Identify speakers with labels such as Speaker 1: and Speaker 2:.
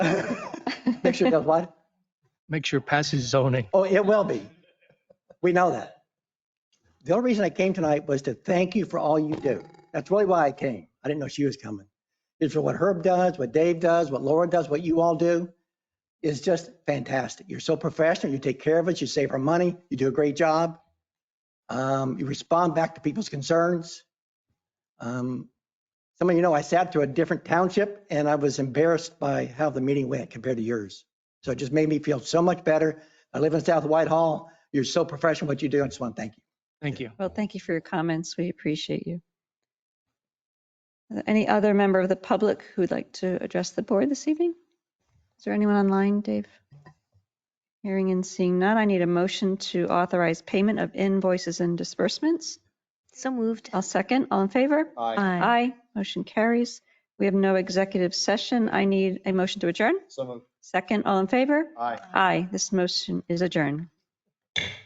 Speaker 1: Make sure it does what?
Speaker 2: Make sure it passes zoning.
Speaker 1: Oh, it will be. We know that. The only reason I came tonight was to thank you for all you do. That's really why I came. I didn't know she was coming. It's for what Herb does, what Dave does, what Laura does, what you all do. It's just fantastic. You're so professional. You take care of us. You save our money. You do a great job. Um, you respond back to people's concerns. Um, some of you know I sat through a different township and I was embarrassed by how the meeting went compared to yours. So it just made me feel so much better. I live in South Whitehall. You're so professional what you do. I just want to thank you.
Speaker 2: Thank you.
Speaker 3: Well, thank you for your comments. We appreciate you. Are there Any other member of the public who'd like to address the board this evening? Is there anyone online, Dave? Hearing and seeing none, I need a motion to authorize payment of invoices and disbursements.
Speaker 4: So moved.
Speaker 3: I'll second. All in favor?
Speaker 4: Aye.
Speaker 3: Aye. Motion carries. We have no executive session. I need a motion to adjourn.
Speaker 5: So moved.
Speaker 3: Second, all in favor?
Speaker 5: Aye.
Speaker 3: Aye. This motion is adjourned.